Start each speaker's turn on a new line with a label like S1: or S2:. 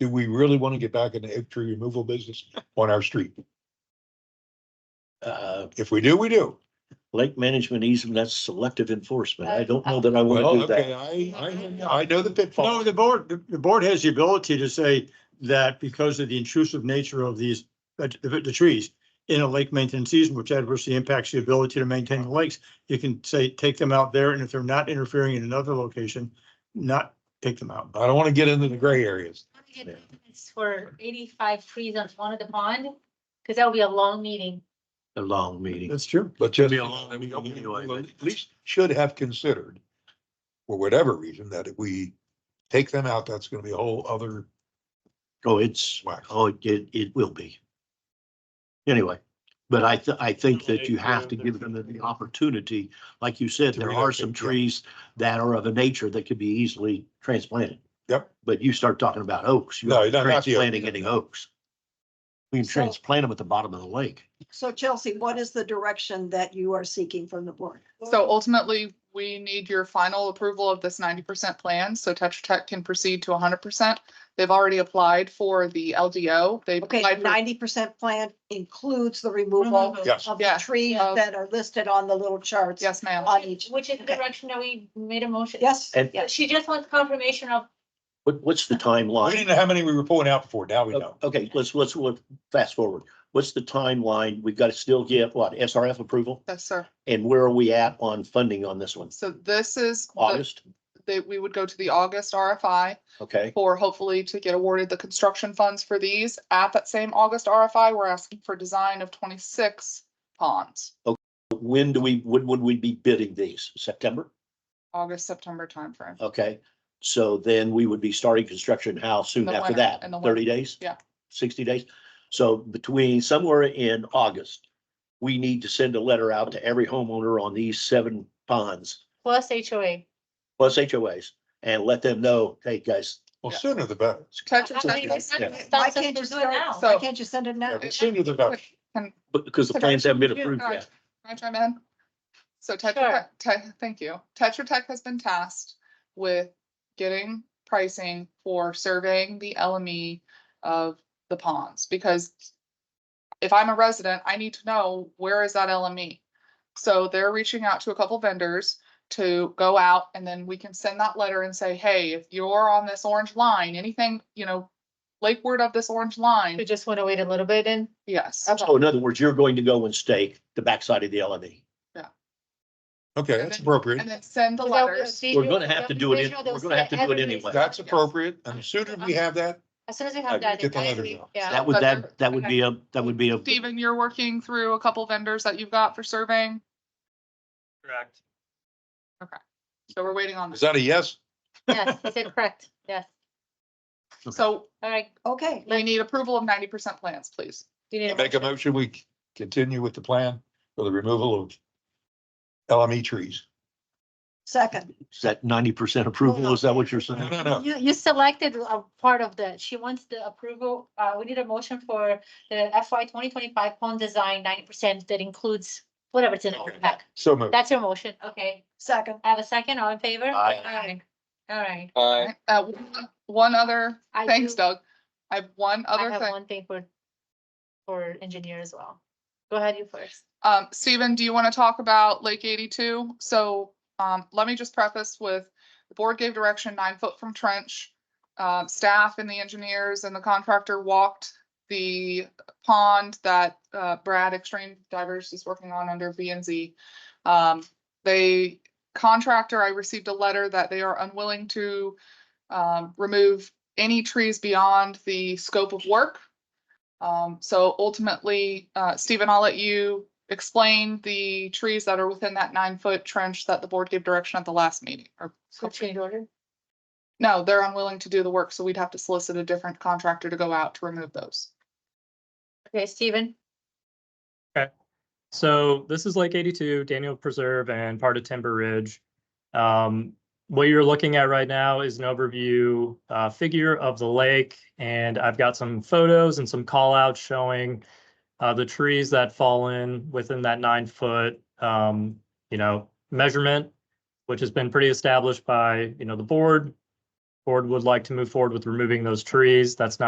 S1: do we really want to get back in the oak tree removal business on our street?
S2: Uh,
S1: If we do, we do.
S2: lake management easement, that's selective enforcement. I don't know that I
S1: Well,
S2: want to do
S1: okay,
S2: that.
S1: I, I, hear you. I know the
S3: No,
S1: pitfall.
S3: the board, the the board has the ability to say that because of the intrusive nature of these, uh, the, the trees in a lake maintenance season, which adversely impacts the ability to maintain the lakes, you can say, take them out there, and if they're not interfering in another location, not take them out.
S1: I don't want to get into the gray areas.
S4: We did
S2: Yeah.
S4: maintenance For eighty-five trees on one of the pond, because that would be a long meeting.
S2: A long meeting.
S3: That's true.
S1: But just,
S2: Be a long
S1: we
S2: meeting anyway, but-
S1: at least should have considered, for whatever reason, that if we take them out, that's gonna be a whole other
S2: Oh, it's,
S1: whack.
S2: oh, it, it will be. Anyway, but I, th- I think that you have to give them the opportunity. Like you said, there are some trees that are of a nature that could be easily transplanted.
S1: Yep.
S2: But you start talking about oaks, you're
S1: No,
S2: not
S1: not- not the oak.
S2: transplanting any oaks. We can
S5: So-
S2: transplant them at the bottom of the lake.
S5: So Chelsea, what is the direction that you are seeking from the board?
S6: So ultimately, we need your final approval of this ninety percent plan, so Tetra Tech can proceed to hundred percent. They've already applied for the LDO. They've
S5: Okay,
S6: applied for,
S5: ninety percent plan includes the removal
S1: Yes,
S5: of
S6: Yeah,
S5: the trees
S6: of-
S5: that are listed on the little charts.
S6: yes, ma'am.
S5: On each.
S4: Which is the
S5: Okay.
S4: direction that we made a motion.
S5: Yes,
S2: And
S4: Yeah, she just wants confirmation of,
S2: what, what's the
S1: we
S2: timeline? Oh,
S1: didn't know how many we were pulling out before, now we know.
S2: Okay, let's, let's, look fast forward. What's the timeline? We've got to still get what, SRF approval?
S6: Yes, sir.
S2: And where are we at on funding on this one?
S6: So this is, the-
S2: August?
S6: that we would go to the August RFI
S2: Okay,
S6: for hopefully to get awarded the construction funds for these. At that same August RFI, we're asking for design of twenty-six ponds,
S2: when do we, when would we be bidding these? September?
S6: August, September timeframe.
S2: Okay, so then we would be starting construction how soon
S6: The
S2: after
S6: winter,
S2: that?
S6: in the winter.
S2: Thirty days?
S6: Yeah.
S2: Sixty days? So between somewhere in August, we need to send a letter out to every homeowner on these seven ponds
S4: plus HOA.
S2: plus HOAs and let them know, hey, guys,
S1: Well, sooner the better.
S6: Tetra
S4: I- I mean,
S6: Tech
S2: Exactly.
S4: that's not
S2: Yeah.
S4: gonna stop
S5: why
S4: us from
S5: can't you
S4: doing
S5: start,
S4: it now.
S5: why
S6: So-
S5: can't you send it
S1: Yeah,
S5: now?
S1: the Sooner the better.
S2: but- because the plans haven't been approved
S6: Yeah,
S2: yet.
S6: Can I chime in? So Tetra
S4: Sure.
S6: Tech, Te- thank you. Tetra Tech has been tasked with getting pricing for surveying the LME of the ponds, because if I'm a resident, I need to know where is that LME? So they're reaching out to a couple vendors to go out and then we can send that letter and say, hey, if you're on this orange line, anything, you know, lakeward of this orange
S4: We
S6: line,
S4: just want to wait a little bit and
S6: yes.
S2: So Oh, in other words, you're going to go and stake the backside of the E. LME.
S1: Okay, that's appropriate.
S6: And then send the letters.
S2: We're gonna have to do it in- we're gonna have to do it anyway.
S1: That's appropriate. And the sooner we have that,
S4: As soon as we have that.
S1: Get the
S4: then
S1: letters
S4: we-
S1: out.
S4: Yeah.
S2: That would, that, that would be a, that would be a.
S6: Steven, you're working through a couple vendors that you've got for surveying,
S7: Correct.
S6: so we're waiting on
S1: is
S6: that.
S1: that a yes?
S4: Yes, he said correct. Yes.
S6: So
S4: All right.
S5: Okay,
S6: we need approval of ninety percent plans, please.
S4: Do you need
S1: Make a motion, we continue with the plan for the removal of LME trees.
S5: second,
S2: Is that ninety percent approval? Is that what you're saying?
S1: No, no, no.
S4: You, you selected a part of that. She wants the approval, uh, we need a motion for the FY twenty twenty-five pond design ninety percent that includes whatever's in the
S1: Okay.
S4: pack.
S1: So moved.
S4: That's your motion, okay.
S5: second.
S4: I have a second, all in favor?
S2: Aye.
S4: All right.
S7: Aye.
S6: Uh, one- one other,
S4: I
S6: thanks
S4: do-
S6: Doug. I have one
S4: I
S6: other
S4: have
S6: thing.
S4: one thing for, for engineer as well. Go ahead, you first.
S6: Um, Steven, do you want to talk about Lake eighty-two? So, um, let me just preface with, the board gave direction nine foot from trench. Um, staff and the engineers and the contractor walked the pond that, uh, Brad Extreme Divers is working on under V and Z. Um, they, contractor, I received a letter that they are unwilling to, um, remove any trees beyond the scope of work. Um, so ultimately, uh, Stephen, I'll let you explain the trees that are within that nine foot trench that the board gave direction at the last meeting or.
S4: So change order?
S6: No, they're unwilling to do the work, so we'd have to solicit a different contractor to go out to remove those.
S4: Okay, Steven,
S7: So this is Lake 82, Daniel Preserve and part of Timber Ridge. Um, What you're looking at right now is an overview uh, figure of the lake. And I've got some photos and some call outs showing uh, the trees that fall in within that nine foot, um, you know, measurement, which has been pretty established by, you know, the board board would like to move forward with removing those trees. That's not